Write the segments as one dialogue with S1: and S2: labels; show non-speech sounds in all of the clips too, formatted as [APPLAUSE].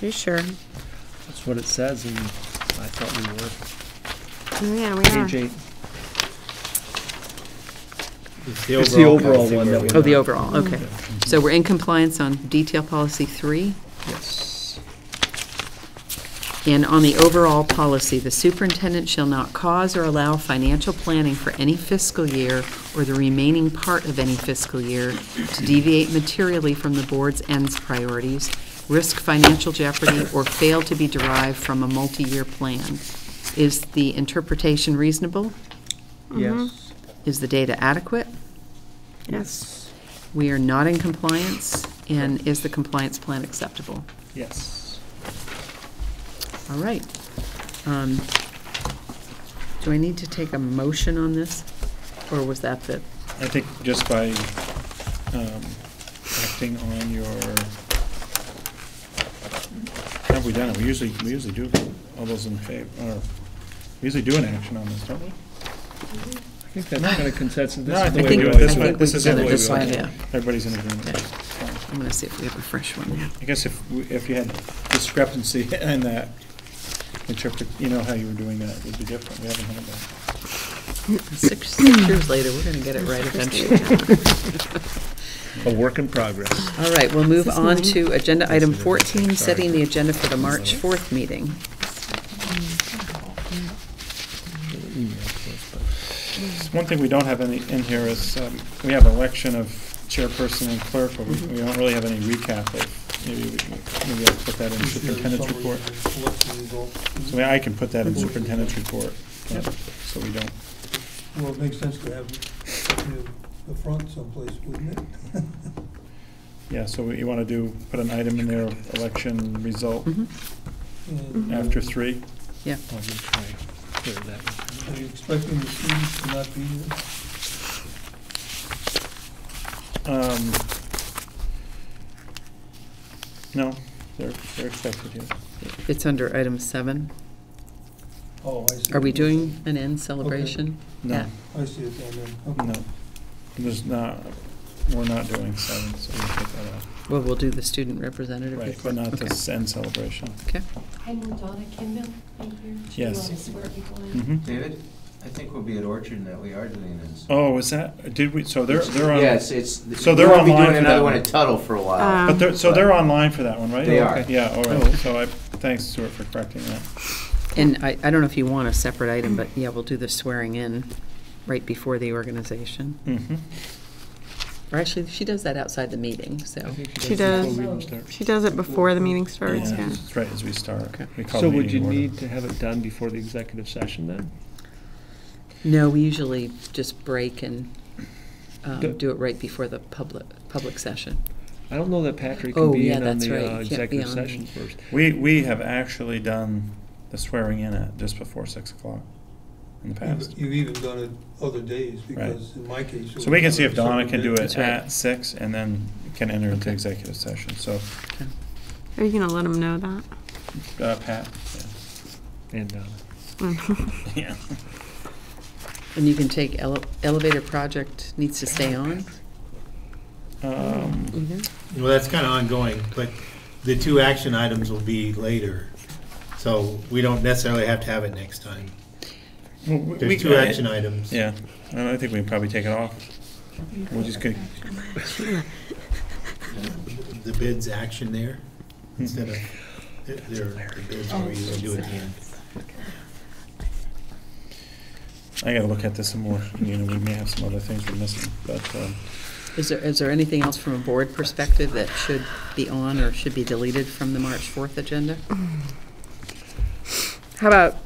S1: You sure?
S2: That's what it says, and I thought we were.
S1: Oh, Yeah,
S2: Page
S1: we are.
S2: eight.
S3: It's
S2: the overall one that
S3: we
S2: we're-
S1: Oh, the overall, okay. So we're in compliance on detail policy three.
S2: Yes.
S1: And on the overall policy, the superintendent shall not cause or allow financial planning for any fiscal year or the remaining part of any fiscal year to deviate materially from the board's ends priorities, risk financial jeopardy, or fail to be derived from a multi-year plan. Is the interpretation reasonable?
S2: Yes.
S1: Is the data adequate?
S2: Yes.
S1: We are not in compliance, and is the compliance plan acceptable?
S2: Yes.
S1: All right. Um, Do I need to take a motion on this, or was that the,
S3: I think just by um, acting on your, have we done it? We usually, we usually do, all those in favor, or, we usually do an action on this, don't we?
S2: I think that's kind of consensus.
S3: No, I
S2: This is the
S3: think
S1: we
S2: way
S3: we do it
S1: always
S3: this
S1: do
S3: way.
S1: it.
S3: This is the
S1: We've
S3: way
S1: done it
S3: we
S1: this way,
S3: always do it.
S1: yeah.
S3: Everybody's in agreement.
S1: I'm going to see if we have a fresh one now.
S3: I guess if, we- if you had discrepancy [LAUGHS] in that, interpret, you know, how you were doing that would be different. We haven't had that.
S1: Six six years later, we're going to get it right eventually.
S2: A work in progress.
S1: All right, we'll move
S4: this
S1: on
S4: mine?
S1: to agenda item
S2: Yes, it is.
S1: 14,
S2: Sorry.
S1: setting the agenda for the March 4th meeting.
S3: One thing we don't have any in here is, um, we have election of chairperson and clerk, but we
S2: Mm-hmm.
S3: we don't really have any recap of, maybe, we- maybe I'll put that in superintendent's report. So I can put that in superintendent's report, uh, so we don't,
S5: Well, it makes sense to have it near the front someplace, wouldn't it?
S3: yeah, so you want to do, put an item in there, election result
S2: Mm-hmm.
S1: Mhm.
S5: And,
S3: [LAUGHS]
S5: uh,
S3: after three.
S5: Are you expecting the students to not be here?
S3: Um, No, they're, they're expected here.
S1: It's under item seven.
S5: Oh, I see.
S1: Are we doing an end celebration?
S3: No,
S5: I see it down there. Okay.
S3: no, there's not, we're not doing seven, so we take that out.
S1: Well, we'll do the student representative.
S3: Right, but
S1: report.
S3: not
S1: Okay.
S3: the end celebration.
S6: I'm Donna Kimball, right here. Do you
S3: Yes.
S6: want to swear people in?
S3: Mm-hmm.
S7: David, I think we'll be at Orchard and that we are doing this.
S3: Oh, is that, did we, so they're, they're on,
S7: Yes, it's.
S3: So they're
S7: we'll be
S3: online for
S7: doing
S3: that
S7: another one
S3: one.
S7: at Tuttle for a while.
S3: but they're, so they're online for that one, right?
S7: They are.
S3: Okay, Yeah, all
S1: Oh.
S3: right, so I, thanks Stuart for correcting that.
S1: And I, I don't know if you want a separate item, but yeah, we'll do the swearing in right before the organization.
S3: Mhm.
S1: Or actually, she does that outside the meeting, so.
S4: She does, she does it before the meeting starts,
S3: Yeah,
S4: yeah.
S3: it's Right, as we start.
S1: Okay.
S3: We call
S2: So
S3: the
S2: would you
S3: meeting order.
S2: need to have it done before the executive session then?
S1: No, we usually just break and um,
S2: Do-
S1: do it right before the public, public session.
S2: I don't know that Patrick
S1: Oh,
S2: can be
S1: yeah,
S2: in on
S1: that's right.
S2: the uh,
S1: He can't be
S2: executive
S1: on the-
S2: session first.
S3: We, we have actually done the swearing in at just before six o'clock in the past.
S5: You've- You've even done it other days, because in my case. it
S3: So
S5: was
S3: we can see
S5: on a
S3: if Donna
S5: separate
S3: can
S5: day.
S3: do it
S1: That's right.
S3: at six and then can enter into
S1: Okay.
S3: executive session, so,
S4: Are you gonna let them know that?
S3: uh, Pat,
S2: And, uh,
S3: yeah. yeah.
S1: And you can take ele- elevator project needs to stay on?
S3: [LAUGHS] Um,
S8: Well, that's kind of ongoing, but the two action items will be later. So we don't necessarily have to have it next time.
S3: well, we- we
S8: There's two
S3: can-
S8: action items.
S3: Yeah, and I think we can probably take it off. We're Mm-hmm. just gonna,
S8: The bid's action there
S3: Hmm.
S8: instead of, there are bids where you do it at the end.
S6: Oh,
S3: I gotta look at this some more, you know, we may have some other things we're missing, but, um,
S1: Is there, is there anything else from a board perspective that should be on or should be deleted from the March 4th agenda?
S4: How about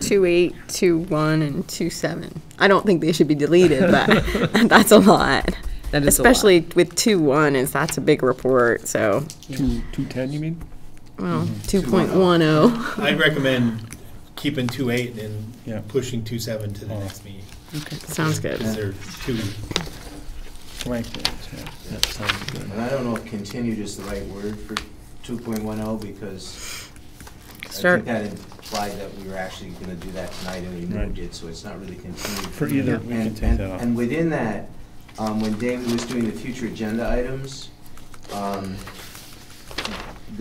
S4: two eight, two one, and two seven? I don't think they should be deleted, but [LAUGHS] that's a lot.
S1: That is a lot.
S4: Especially with two one, is that's a big report, so,
S2: two, two ten, you mean?
S4: well, two point one
S8: [LAUGHS]
S4: oh.
S8: I'd recommend keeping two eight and
S3: yeah. Oh.
S8: then pushing two seven to the next meeting.
S4: Sounds good.
S8: Because they're two,
S3: blank dates, yeah.
S2: That sounds good.
S7: And I don't know if continued is the right word for two point one oh, because I
S4: Start-
S7: think that implied that we were actually gonna do that tonight, and we
S3: Right.
S7: moved it, so it's not really continued.
S3: For either, we can
S7: And-
S3: take
S7: and-
S3: that off.
S7: And within that, um, when David was doing the future agenda items, um,